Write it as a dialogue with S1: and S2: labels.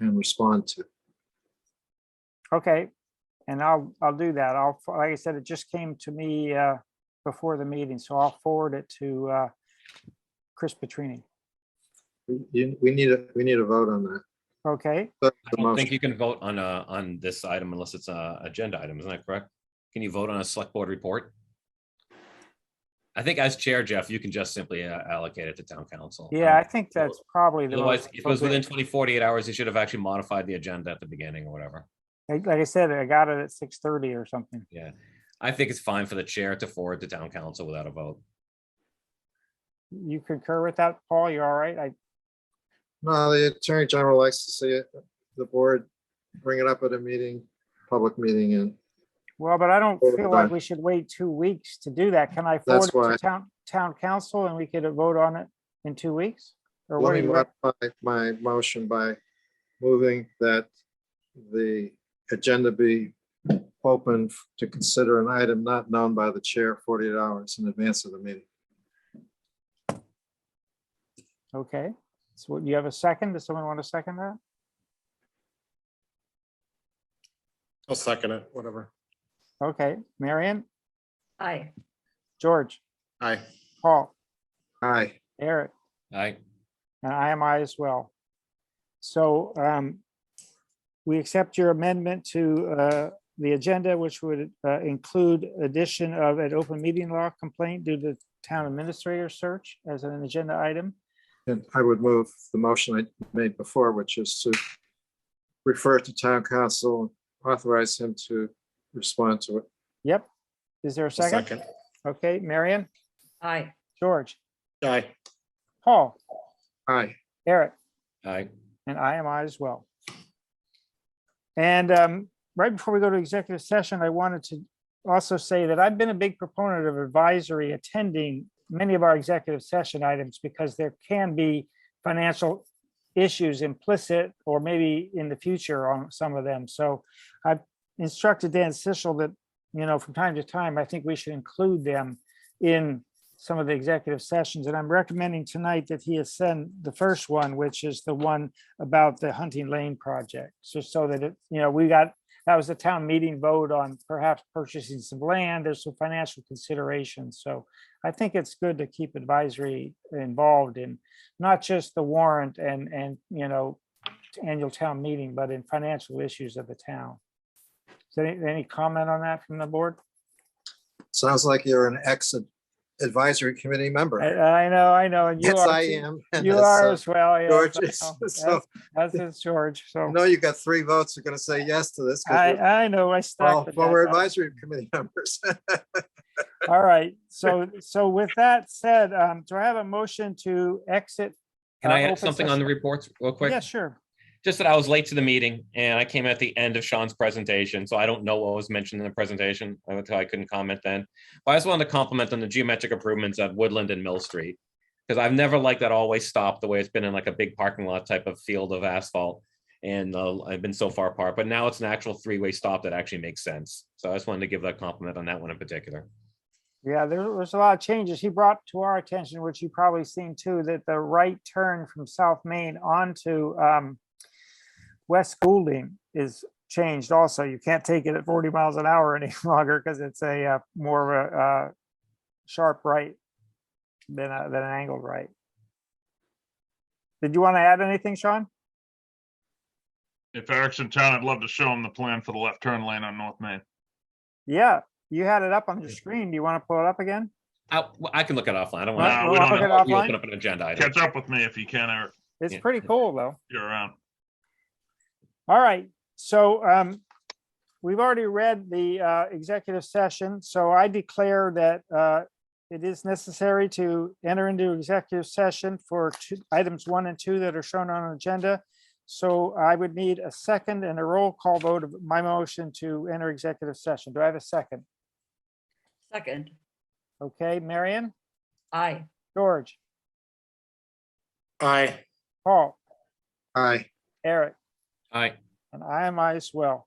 S1: and respond to.
S2: Okay, and I'll, I'll do that. I'll, like I said, it just came to me uh, before the meeting, so I'll forward it to uh, Chris Petrini.
S1: We- you- We need, a we need a vote on that.
S2: Okay,
S1: That's
S3: I
S1: the
S3: don't think
S1: motion.
S3: you can vote on a, on this item unless it's a agenda item, isn't that correct? Can you vote on a select board report? I think as chair, Jeff, you can just simply uh, allocate it to town council.
S2: yeah, I
S3: Um,
S2: think that's probably the.
S3: Otherwise,
S2: most
S3: if it was within
S2: appropriate.
S3: 20, 48 hours, you should have actually modified the agenda at the beginning or whatever.
S2: Like like I said, I got it at six thirty or something.
S3: Yeah, I think it's fine for the chair to forward to town council without a vote.
S2: You concur with that, Paul? You all right? I,
S1: No, the Attorney General likes to see it, the board bring it up at a meeting, public meeting, and
S2: well, but I don't
S1: Forward
S2: feel like
S1: done.
S2: we should wait two weeks to do that. Can I forward
S1: That's
S2: it to
S1: why-
S2: town, town council and we could vote on it in two weeks? Or
S1: let
S2: what do
S1: me
S2: you rec-
S1: modify my motion by moving that the agenda be open to consider an item not known by the chair 48 hours in advance of the meeting.
S2: Okay, so do you have a second? Does someone want to second that?
S4: I'll second it, whatever.
S2: Okay, Marion,
S5: Aye.
S2: George,
S4: Aye.
S2: Paul,
S1: Aye.
S2: Eric,
S3: I,
S2: and I am I as well. So um, we accept your amendment to uh, the agenda, which would uh, include addition of an open meeting law complaint due to town administrator search as an agenda item.
S1: And I would move the motion I made before, which is to refer to town council, authorize him to respond to it.
S2: Yep. Is there a second? Okay, Marion,
S5: Aye.
S2: George,
S4: Aye.
S2: Paul,
S1: Aye.
S2: Eric.
S3: I,
S2: And I am I as well. And um, right before we go to executive session, I wanted to also say that I've been a big proponent of advisory attending many of our executive session items because there can be financial issues implicit or maybe in the future on some of them. So I've instructed Dan Sichel that, you know, from time to time, I think we should include them in some of the executive sessions. And I'm recommending tonight that he ascend the first one, which is the one about the Hunting Lane project, so so that it, you know, we got, that was a town meeting vote on perhaps purchasing some land, there's some financial considerations, so I think it's good to keep advisory involved in not just the warrant and, and, you know, annual town meeting, but in financial issues of the town. So any, any comment on that from the board?
S1: Sounds like you're an ex advisory committee member.
S2: I, I know, I know, and you
S1: Yes, I
S2: are, too.
S1: am. and
S2: you
S1: that's,
S2: are
S1: uh,
S2: as well,
S1: George
S2: yes,
S1: is-
S2: I know.
S1: so-
S2: as, as is George,
S1: I
S2: so
S1: know you got three votes. You're going to say yes to this. 'cause
S2: I,
S1: you're
S2: I know, I
S1: all
S2: stuck with
S1: Former
S2: that.
S1: advisory committee members.
S2: All right, so, so with that said, um, do I have a motion to exit?
S3: can
S2: uh,
S3: I
S2: open
S3: add something on the
S2: session?
S3: reports real quick?
S2: Yeah, sure.
S3: just that I was late to the meeting and I came at the end of Sean's presentation, so I don't know what was mentioned in the presentation. I I couldn't comment then. But I just wanted to compliment on the geometric improvements at Woodland and Mill Street. Because I've never liked that always stop the way it's been in like a big parking lot type of field of asphalt. And uh, I've been so far apart, but now it's an actual three-way stop that actually makes sense. So I just wanted to give that compliment on that one in particular.
S2: Yeah, there was a lot of changes. He brought to our attention, which you probably seen too, that the right turn from South Main onto, um, West Goulding is changed also. You can't take it at forty miles an hour any longer because it's a, uh, more of a, uh, sharp right than a, than an angled right. Did you want to add anything, Sean?
S6: If Eric's in town, I'd love to show him the plan for the left turn lane on North Main.
S2: Yeah, you had it up on your screen. Do you want to pull it up again?
S3: I, well, I can look it offline. I don't want
S6: Nah, we
S2: Well,
S6: don't
S2: I'll look
S6: know.
S3: to
S2: it
S3: open
S2: offline.
S3: up an agenda item.
S6: Catch up with me if you can, Eric.
S2: It's
S3: Yeah.
S2: pretty cool, though.
S6: You're around.
S2: All right, so um, we've already read the uh, executive session, so I declare that uh, it is necessary to enter into executive session for two- items one and two that are shown on our agenda. So I would need a second and a roll call vote of my motion to enter executive session. Do I have a second?
S5: Second.
S2: Okay, Marion,
S5: Aye.
S2: George,
S4: Aye.
S2: Paul,
S1: Aye.
S2: Eric.
S3: All right.
S2: And I am I as well.